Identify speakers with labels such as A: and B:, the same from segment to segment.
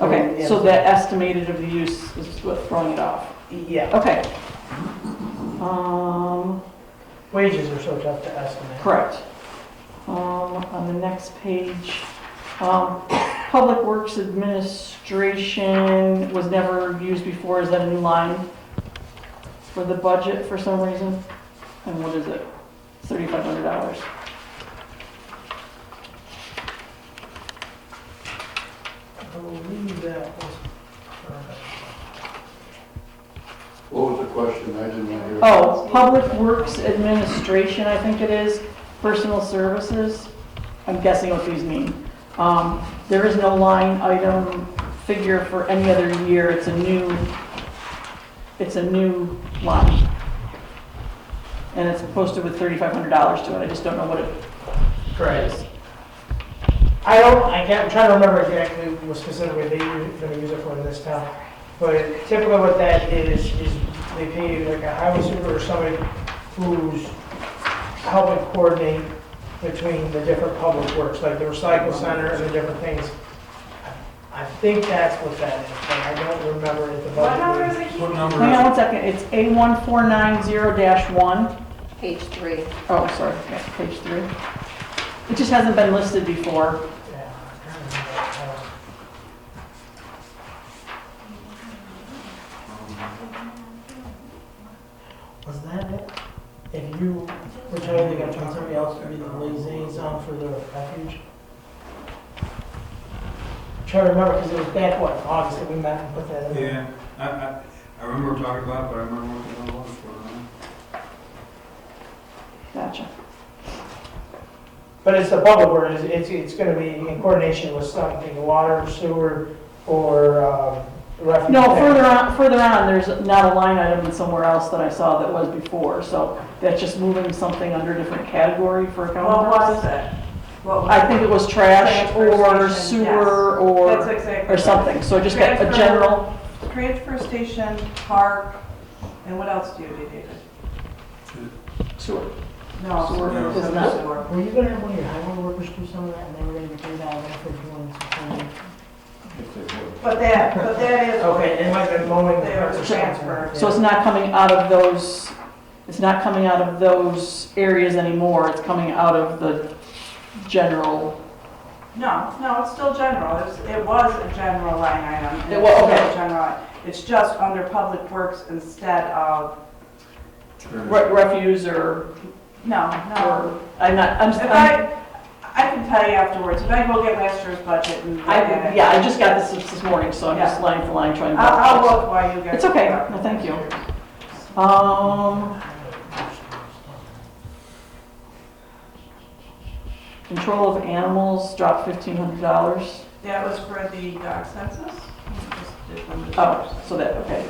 A: and-
B: So that estimated of the use is what throwing it off.
A: Yeah,
B: Okay. Um,
A: wages are so tough to estimate.
B: correct. Um, on the next page, um, Public Works Administration was never used before. Is that a new line for the budget for some reason? And what is it? Thirty-five hundred dollars.
A: I believe that was,
C: What was the question? I didn't hear.
B: Oh, Public Works Administration, I think it is, Personal Services. I'm guessing what these mean. Um, There is no line item figure for any other year. It's a new, it's a new line. And it's posted with $3,500 to it. I just don't know what it is.
A: correct. I don't, I can't, I'm trying to remember exactly what specifically they were gonna use it for in this town. But typically what that is, is they pay like a highway super or somebody who's helping coordinate between the different public works, like the recycle center and the different things. I think that's what that is, but I don't remember it. the
D: What
A: budget.
D: number is it? Keith?
E: What number
B: Hang on
E: is
B: one second. It's A1490-1.
F: Page three.
B: Oh, sorry, yeah, page three. It just hasn't been listed before.
A: Yeah, I can't remember. Um, Was that it? If you were totally gonna find somebody else to be the liaison for the refuge? Trying to remember, because it was back, what, August that we met and put that
E: it?
A: in?
E: Yeah, I, I, I remember talking about it, but I remember what it was for. huh?
B: Gotcha.
A: But it's the bubble word, it's, it's, it's gonna be in coordination with something, water, sewer, or, um, refuge.
B: No, further on, further on, there's not a line item in somewhere else that I saw that was before, so that's just moving something under a different category for
D: What
B: accounting
D: was
B: purposes.
D: it? What was
B: I think it was trash or
D: Transportation, yes.
B: sewer
D: That's
B: or,
D: exactly.
B: or something, so I just got a
D: Transfer.
B: general,
D: Transfer station, park, and what else do you do, David?
B: sewer.
D: No.
B: Sewer
D: sewer,
B: is
D: sewer,
B: not-
D: sewer.
A: Were you gonna have one of your highway workers do some of that, and they were gonna be paid out of that for doing something?
C: If they would.
D: But that, but that is.
A: Okay, it might have been mowing.
D: They were transferred.
B: So it's not coming out of those, it's not coming out of those areas anymore, it's coming out of the general.
D: No, no, it's still general. It was, it was a general line item. and
B: It was,
D: it's still
B: okay.
D: general. It's just under public works instead of,
B: re- Refuse or,
D: no, no.
B: or, I'm not, I'm,
D: If
B: I'm
D: I, I can tell you afterwards, if I go get last year's budget and. look at
B: I,
D: it.
B: yeah, I just got this this morning, so I'm just line for line trying to.
D: I'll, I'll look while you guys.
B: It's okay,
D: look.
B: no, thank you. Um, control of animals dropped fifteen hundred dollars.
D: That was for the dog census?
B: Oh, so that, okay.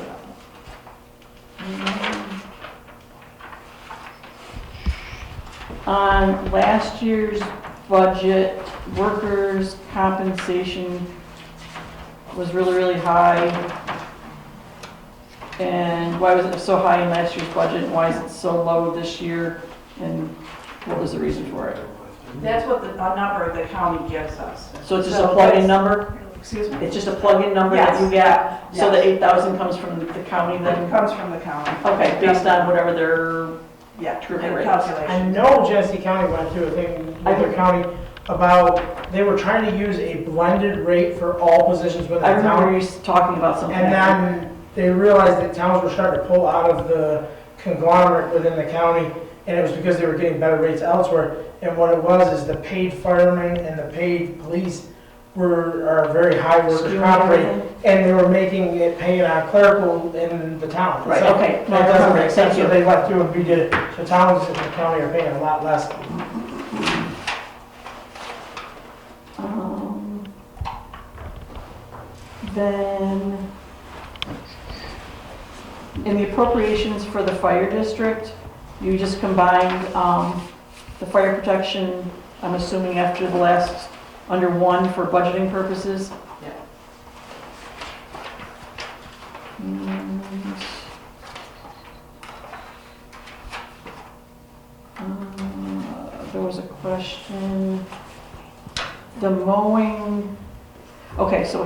B: On last year's budget, workers' compensation was really, really high. And why was it so high in last year's budget, and why is it so low this year, and what was the reason for it?
D: That's what the, a number the county gives us.
B: So it's just a plug-in number?
D: Excuse me?
B: It's just a plug-in number that you get?
D: Yes,
B: So the
D: yes.
B: eight thousand comes from the county
D: It
B: then?
D: comes from the county.
B: Okay, based on whatever their,
D: Yeah,
B: True
D: and
B: rate.
A: I
D: calculation.
A: know Genesee County went through a thing with their county about, they were trying to use a blended rate for all positions within
B: I
A: the
B: remember
A: town.
B: you talking about something.
A: And then they realized that towns were starting to pull out of the conglomerate within the county, and it was because they were getting better rates elsewhere. And what it was is the paid firemen and the paid police were, are very high workers' comp rate. And they were making it pay on clerical in the town.
B: Right,
A: So
B: okay.
A: That doesn't make
B: Thank
A: sense, so
B: you.
A: they went through and redid it. So towns in the county are paying a lot less.
B: Um, Then, in the appropriations for the fire district, you just combined um, the fire protection, I'm assuming after the last, under one for budgeting purposes?
D: Yeah.
B: And, uh, There was a question, the mowing, okay, so